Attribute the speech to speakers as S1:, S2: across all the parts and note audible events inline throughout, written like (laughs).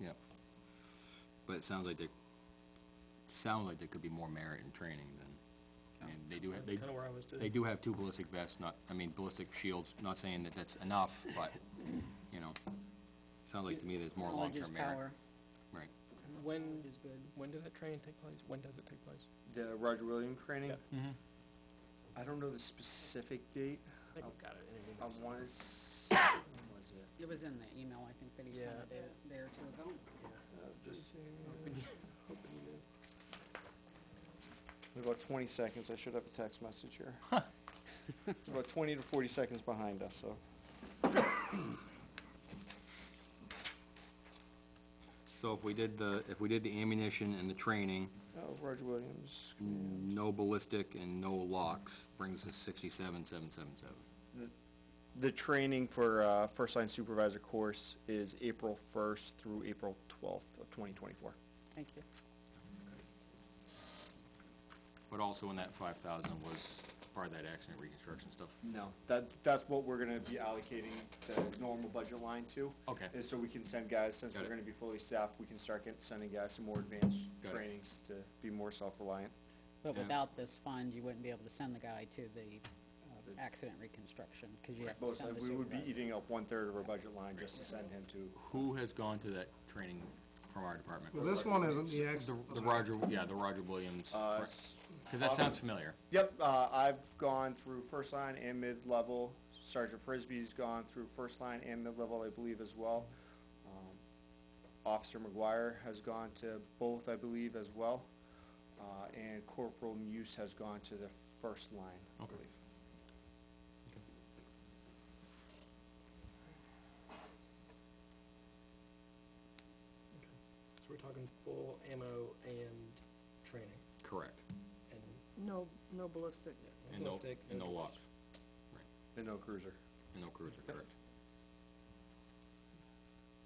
S1: Yep. But it sounds like there, sounds like there could be more merit in training than, I mean, they do have, they,
S2: That's kinda where I was too.
S1: they do have two ballistic vests, not, I mean, ballistic shields, not saying that that's enough, but, you know, sounds like to me there's more
S3: Knowledge is
S1: long-term merit.
S3: power.
S1: Right,
S2: When,
S3: Knowledge is good.
S2: when did that training take place? When does it take place?
S4: The Roger Williams training?
S1: Mhm.
S4: I don't know the specific date.
S2: I think I've got it. in an
S4: I
S2: email somewhere.
S4: wanna s- when was it?
S3: It was in the email, I think, that he sent
S2: Yeah.
S3: a day, day or two ago.
S4: Uh,
S2: Pretty
S4: Just
S2: soon.
S4: In about twenty seconds, I should have a text message here. It's about twenty to forty seconds behind us, so.
S1: so if we did the, if we did the ammunition and the training,
S4: Oh, Roger Williams,
S1: no ballistic and no locks, brings us sixty-seven, seven, seven, seven.
S4: the training for, uh, first line supervisor course is April first through April twelfth of twenty twenty-four.
S3: Thank you.
S1: But also in that five thousand was part of that accident reconstruction stuff.
S4: No, that's, that's what we're gonna be allocating the normal budget line to.
S1: Okay.
S4: Is so we can send guys, since
S1: Got
S4: we're
S1: it.
S4: gonna be fully staffed, we can start get, sending guys some more advanced
S1: Got it.
S4: trainings to be more self-reliant.
S3: But
S1: Yeah.
S3: without this fund, you wouldn't be able to send the guy to the uh,
S4: The-
S3: accident reconstruction, because you have to
S4: Most,
S3: send the
S4: we would be
S3: supervisor.
S4: eating up one-third of our budget line just to send him to
S1: Who has gone to that training from our department?
S5: Well, this one isn't the
S1: The
S5: accident.
S1: the Roger, yeah, the Roger Williams,
S4: Uh,
S1: because
S4: s-
S1: that sounds
S4: Robin-
S1: familiar.
S4: Yep, uh, I've gone through first line and mid-level. Sergeant Frisbee's gone through first line and mid-level, I believe, as well. Um, Officer McGuire has gone to both, I believe, as well. Uh, and Corporal Muse has gone to the first line, I
S1: Okay.
S4: believe.
S2: So we're talking full ammo and training
S1: Correct.
S2: and
S6: No, no ballistic.
S1: And no,
S2: ballistic,
S1: and no
S2: device.
S1: locks,
S4: And no cruiser.
S1: and no crews are correct.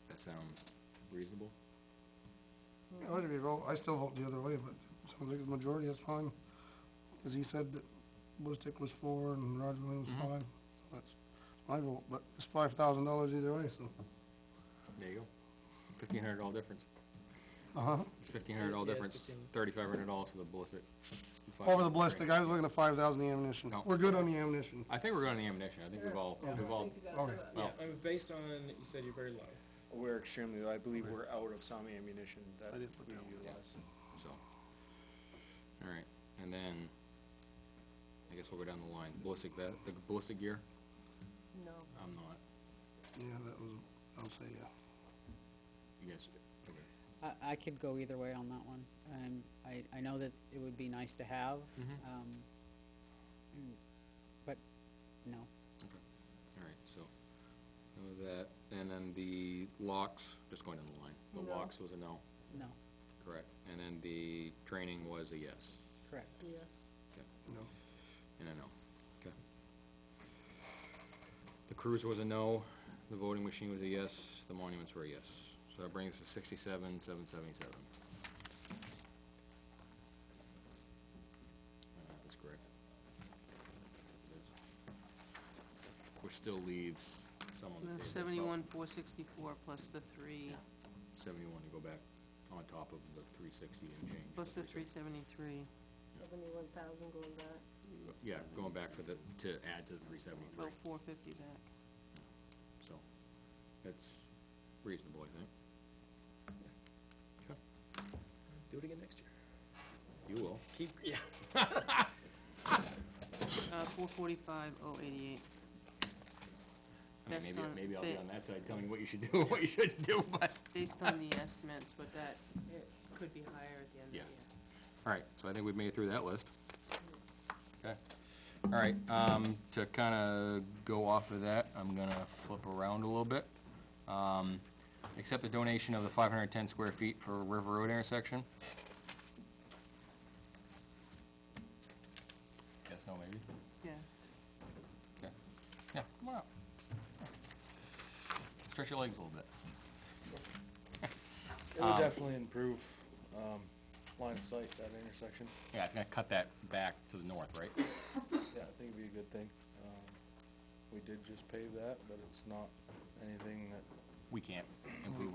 S1: That sound reasonable?
S5: Yeah, I'd be wrong, I still vote the other way, but it sounds like the majority, that's fine. Cause he said that ballistic was four and Roger Williams was five, so that's my vote, but it's five thousand dollars either way, so,
S1: There you go. Fifteen hundred dollar difference.
S5: uh-huh.
S1: It's fifteen hundred dollar
S2: Yeah, it's
S1: difference,
S2: 15.
S1: thirty-five hundred dollars for the ballistic.
S5: Over the ballistic, I was looking at five thousand the ammunition,
S1: No.
S5: we're good on the ammunition,
S1: I think we're going to ammunition. I think we've all, we've all,
S5: okay.
S2: Yeah,
S1: well,
S2: I mean, based on, you said you're very low.
S4: We're extremely, I believe we're out of some ammunition that
S5: I
S4: we
S5: didn't put that one down.
S4: utilize.
S1: So, all right, and then, I guess we'll go down the line, ballistic vest, the ballistic gear,
S6: No.
S1: I'm not,
S5: Yeah, that was, I'll say, yeah,
S1: you guys, okay.
S3: I, I could go either way on that one. Um, I, I know that it would be nice to have,
S1: Mhm.
S3: um, mm, but no.
S1: all right, so, that was that, and then the locks, just going down the line, the
S6: No.
S1: locks was a no,
S3: No,
S1: correct, and then the training was a yes,
S3: correct.
S6: Yes.
S5: no.
S1: and a no, okay. The cruiser was a no, the voting machine was a yes, the monuments were a yes, so that brings us to sixty-seven, seven seventy-seven. Uh, That's correct. Which still leaves some on the table. about
S7: Seventy-one, four sixty-four plus the three,
S1: Seventy-one to go back on top of the three sixty and change.
S7: plus the three
S1: 360.
S7: seventy-three.
S6: Seventy-one thousand going back.
S1: Yeah, going back for the, to add to the three seventy-three,
S7: About four fifty back.
S1: so, that's reasonable, I think.
S2: Do it again next year.
S1: You will.
S2: Keep, yeah.
S7: Uh, four forty-five, oh eighty-eight.
S1: I mean,
S7: Best
S1: maybe,
S7: on-
S1: maybe I'll be
S7: ba-
S1: on that side telling you what you should do, and what you shouldn't do, (laughs) but.
S7: Based on the estimates, but that, it could be higher at the end of the
S1: Yeah.
S7: year.
S1: Alright, so I think we've made it through that list. Okay, alright, um, to kinda go off of that, I'm gonna flip around a little bit. Um, accept the donation of the five hundred and ten square feet for River Road intersection. Yes, no, maybe?
S7: Yeah,
S1: Okay, yeah, come on up. Stretch your legs a little bit.
S8: It would definitely improve, um, line of sight, that intersection.
S1: Yeah, it's gonna cut that back to the north, right?
S8: Yeah, I think it'd be a good thing. Um, we did just pave that, but it's not anything that
S1: We can't improve